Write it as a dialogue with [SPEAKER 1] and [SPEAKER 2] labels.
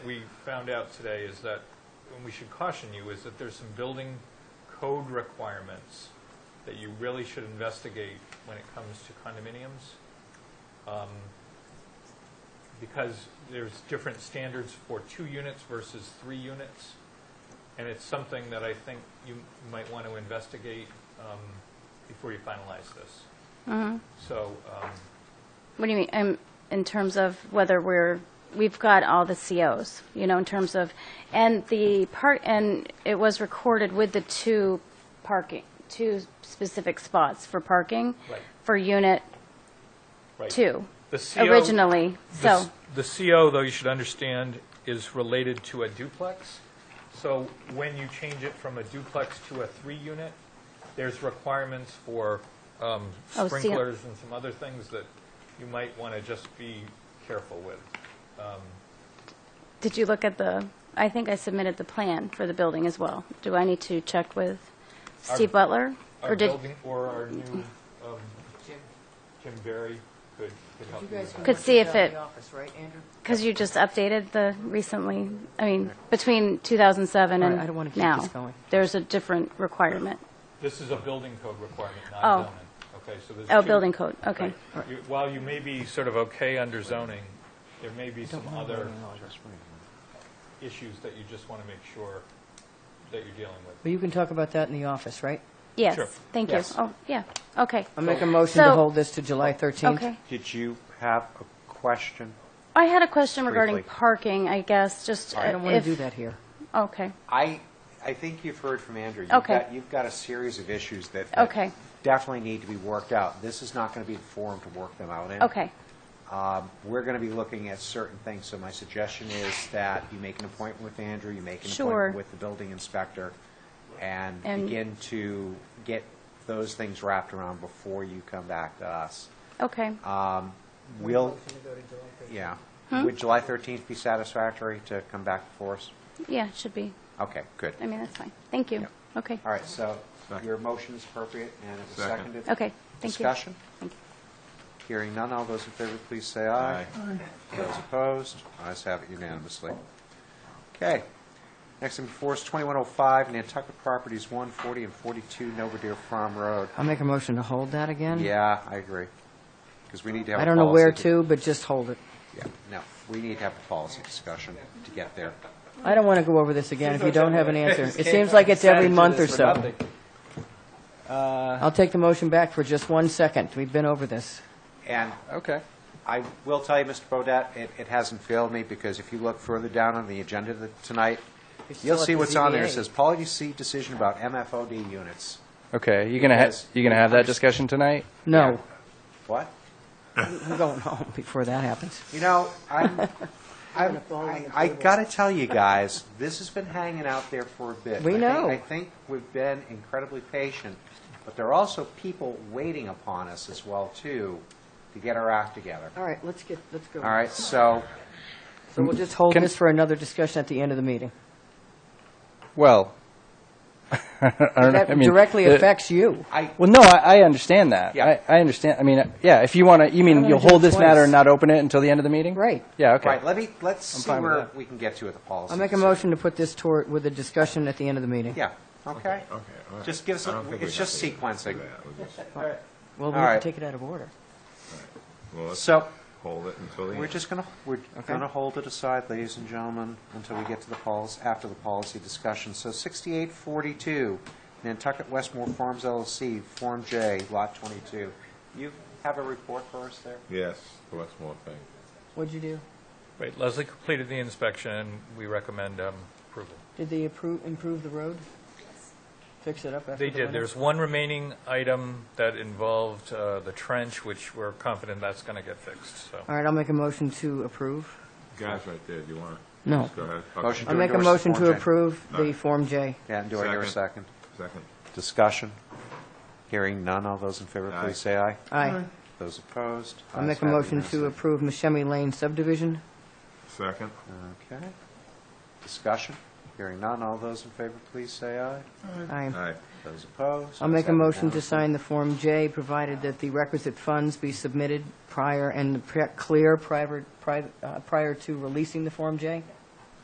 [SPEAKER 1] we found out today is that, and we should caution you, is that there's some building code requirements that you really should investigate when it comes to condominiums. Um, Because there's different standards for two units versus three units. And it's something that I think you might want to investigate um, before you finalize this. So, um,
[SPEAKER 2] What do you mean, um, in terms of whether we're, we've got all the COs, you know, in terms of, and the part, and it was recorded with the two parking, two specific spots for parking
[SPEAKER 1] Right.
[SPEAKER 2] for unit
[SPEAKER 1] right.
[SPEAKER 2] two,
[SPEAKER 1] The CO
[SPEAKER 2] originally,
[SPEAKER 1] The
[SPEAKER 2] so,
[SPEAKER 1] s- The CO, though, you should understand, is related to a duplex. So when you change it from a duplex to a three-unit, there's requirements for um,
[SPEAKER 2] Oh, CO.
[SPEAKER 1] sprinklers and some other things that you might want to just be careful with.
[SPEAKER 2] did you look at the, I think I submitted the plan for the building as well. Do I need to check with Steve Butler?
[SPEAKER 1] Our
[SPEAKER 2] Or did,
[SPEAKER 1] building, or our new, um, Kim Berry could could help
[SPEAKER 3] You
[SPEAKER 1] you with
[SPEAKER 3] guys
[SPEAKER 1] that.
[SPEAKER 2] Could see if it-
[SPEAKER 3] The office, right, Andrew?
[SPEAKER 2] because you just updated the recently, I mean, between 2007
[SPEAKER 3] All
[SPEAKER 2] and
[SPEAKER 3] right,
[SPEAKER 2] now.
[SPEAKER 3] I don't wanna keep this going.
[SPEAKER 2] There's a different requirement.
[SPEAKER 1] This is a building code requirement, not
[SPEAKER 2] Oh.
[SPEAKER 1] zoning. Okay, so there's
[SPEAKER 2] Oh,
[SPEAKER 1] two-
[SPEAKER 2] building code, okay.
[SPEAKER 1] Right. You- While you may be sort of okay under zoning, there may be some other issues that you just want to make sure that you're dealing with.
[SPEAKER 3] Well, you can talk about that in the office, right?
[SPEAKER 2] Yes,
[SPEAKER 1] Sure.
[SPEAKER 2] thank you.
[SPEAKER 1] Yes.
[SPEAKER 2] Oh, yeah, okay,
[SPEAKER 3] I'll make a motion to
[SPEAKER 2] So-
[SPEAKER 3] hold this to July 13th.
[SPEAKER 2] okay.
[SPEAKER 4] Did you have a question?
[SPEAKER 2] I had a question regarding
[SPEAKER 4] Briefly.
[SPEAKER 2] parking, I guess, just.
[SPEAKER 3] I don't want to
[SPEAKER 2] if-
[SPEAKER 3] do that here.
[SPEAKER 2] Okay,
[SPEAKER 4] I, I think you've heard from Andrew. You've
[SPEAKER 2] Okay.
[SPEAKER 4] got- You've got a series of issues that that
[SPEAKER 2] Okay.
[SPEAKER 4] definitely need to be worked out. This is not going to be the forum to work them out in.
[SPEAKER 2] okay,
[SPEAKER 4] Um, We're going to be looking at certain things, so my suggestion is that you make an appointment with Andrew, you make an
[SPEAKER 2] Sure.
[SPEAKER 4] appointment with the building inspector, and
[SPEAKER 2] And-
[SPEAKER 4] begin to get those things wrapped around before you come back to us.
[SPEAKER 2] okay.
[SPEAKER 3] Uh,
[SPEAKER 4] Will, yeah.
[SPEAKER 2] Hmm?
[SPEAKER 4] Would July 13th be satisfactory to come back for us?
[SPEAKER 2] Yeah, it should be.
[SPEAKER 4] Okay, good.
[SPEAKER 2] I mean, that's fine. Thank you. Okay,
[SPEAKER 4] All right, so your motion is appropriate, and it's seconded.
[SPEAKER 2] okay, thank you.
[SPEAKER 4] Discussion? Hearing none, all those in favor, please say aye. Those opposed, ayes have it unanimously. Okay. Next in before is 2105, Nantucket Properties 140 and 42 Novadear Farm Road.
[SPEAKER 3] I'll make a motion to hold that
[SPEAKER 2] Um,
[SPEAKER 3] again.
[SPEAKER 4] Yeah, I agree, because we need to have a
[SPEAKER 3] I
[SPEAKER 4] policy.
[SPEAKER 3] don't know where
[SPEAKER 4] di-
[SPEAKER 3] to, but just hold it.
[SPEAKER 4] Yeah, no, we need to have a policy discussion to get there.
[SPEAKER 3] I don't want to go over this again if you don't have an answer. It seems like it's every month or so. I'll take the motion back for just one second. We've been over this.
[SPEAKER 4] And
[SPEAKER 5] Okay.
[SPEAKER 4] I will tell you, Mr. Bodett, it, it hasn't failed me, because if you look further down on the agenda th- tonight,
[SPEAKER 3] It's
[SPEAKER 4] you'll
[SPEAKER 3] still at
[SPEAKER 4] see
[SPEAKER 3] the
[SPEAKER 4] what's on there. It
[SPEAKER 3] ZBA.
[SPEAKER 4] says policy decision about MFOD units.
[SPEAKER 5] Okay, you gonna ha-
[SPEAKER 4] Yes.
[SPEAKER 5] you gonna have that discussion tonight?
[SPEAKER 3] No,
[SPEAKER 4] What?
[SPEAKER 3] I'm going home before that happens.
[SPEAKER 4] You know, I'm, I'm, I, I gotta tell you guys, this has been hanging out there for a bit.
[SPEAKER 3] We
[SPEAKER 4] I think-
[SPEAKER 3] know.
[SPEAKER 4] I think we've been incredibly patient, but there are also people waiting upon us as well, too, to get our act together.
[SPEAKER 3] All right, let's get, let's go.
[SPEAKER 4] All right, so,
[SPEAKER 3] So we'll just hold
[SPEAKER 5] Can-
[SPEAKER 3] this for another discussion at the end of the meeting.
[SPEAKER 5] Well, I don't know.
[SPEAKER 3] That
[SPEAKER 5] I mean, uh,
[SPEAKER 3] directly
[SPEAKER 5] the-
[SPEAKER 3] affects you.
[SPEAKER 4] I,
[SPEAKER 5] Well, no, I, I understand that.
[SPEAKER 4] Yeah.
[SPEAKER 5] I, I understand. I mean, yeah. If you want to, you
[SPEAKER 3] I
[SPEAKER 5] mean
[SPEAKER 3] wanna
[SPEAKER 5] you'll
[SPEAKER 3] do
[SPEAKER 5] hold
[SPEAKER 3] it
[SPEAKER 5] this matter
[SPEAKER 3] twice.
[SPEAKER 5] and not open it until the end of the meeting?
[SPEAKER 3] Right.
[SPEAKER 5] Yeah. Okay.
[SPEAKER 4] right, let me, let's see
[SPEAKER 5] fine with
[SPEAKER 4] where
[SPEAKER 5] that.
[SPEAKER 4] we can get to with the policy.
[SPEAKER 3] I'll make a
[SPEAKER 4] decision.
[SPEAKER 3] motion to put this toward, with a discussion at the end of the meeting.
[SPEAKER 4] Yeah, okay.
[SPEAKER 6] Okay, all right.
[SPEAKER 4] Just give us,
[SPEAKER 6] I don't think
[SPEAKER 4] it's
[SPEAKER 6] we
[SPEAKER 4] just
[SPEAKER 6] have to
[SPEAKER 4] sequencing.
[SPEAKER 6] do that. We just-
[SPEAKER 3] Well, we
[SPEAKER 4] All
[SPEAKER 3] can
[SPEAKER 4] right.
[SPEAKER 3] take it out of order.
[SPEAKER 6] Well, let's
[SPEAKER 4] So,
[SPEAKER 6] hold it until the
[SPEAKER 4] we're
[SPEAKER 6] end.
[SPEAKER 4] just gonna, we're gonna hold it aside, ladies and gentlemen, until we get to the policy, after the policy discussion. So sixty-eight forty-two, Nantucket Westmore Farms LLC, Form J, Lot twenty-two. You have a report for us there?
[SPEAKER 6] Yes, what's more thing?
[SPEAKER 3] What'd you do?
[SPEAKER 1] Right, Leslie completed the inspection, and we recommend um, approval.
[SPEAKER 3] Did they approve, improve the road? Fix it up after the
[SPEAKER 1] They
[SPEAKER 3] winter?
[SPEAKER 1] did. There's one remaining item that involved uh, the trench, which we're confident that's going to get fixed, so.
[SPEAKER 3] All right, I'll make a motion to approve.
[SPEAKER 6] Guys right there, do you want?
[SPEAKER 3] No.
[SPEAKER 6] Go ahead. Okay.
[SPEAKER 4] Motion
[SPEAKER 3] I'll
[SPEAKER 4] Do
[SPEAKER 3] make a
[SPEAKER 4] endorse the
[SPEAKER 3] motion
[SPEAKER 4] Form
[SPEAKER 3] to
[SPEAKER 4] J.
[SPEAKER 3] approve the
[SPEAKER 6] Alright.
[SPEAKER 3] Form J.
[SPEAKER 4] Dan, do I hear a
[SPEAKER 6] Second.
[SPEAKER 4] second?
[SPEAKER 6] Second.
[SPEAKER 4] Discussion? Hearing none, all those in favor,
[SPEAKER 6] Aye.
[SPEAKER 4] please say aye.
[SPEAKER 3] Aye.
[SPEAKER 4] Those opposed?
[SPEAKER 3] I'll
[SPEAKER 4] Ayes
[SPEAKER 3] make a
[SPEAKER 4] have it
[SPEAKER 3] motion to
[SPEAKER 4] unanimously.
[SPEAKER 3] approve Mashemmy Lane subdivision.
[SPEAKER 6] Second.
[SPEAKER 4] Okay. Discussion? Hearing none, all those in favor, please say aye.
[SPEAKER 3] Aye.
[SPEAKER 6] Aye.
[SPEAKER 4] Those opposed?
[SPEAKER 3] I'll
[SPEAKER 4] Ayes
[SPEAKER 3] make a
[SPEAKER 4] have it
[SPEAKER 3] motion to
[SPEAKER 4] unanimously.
[SPEAKER 3] sign the Form J, provided that the requisite funds be submitted prior and the pre- clear prior, prior uh, prior to releasing the Form J.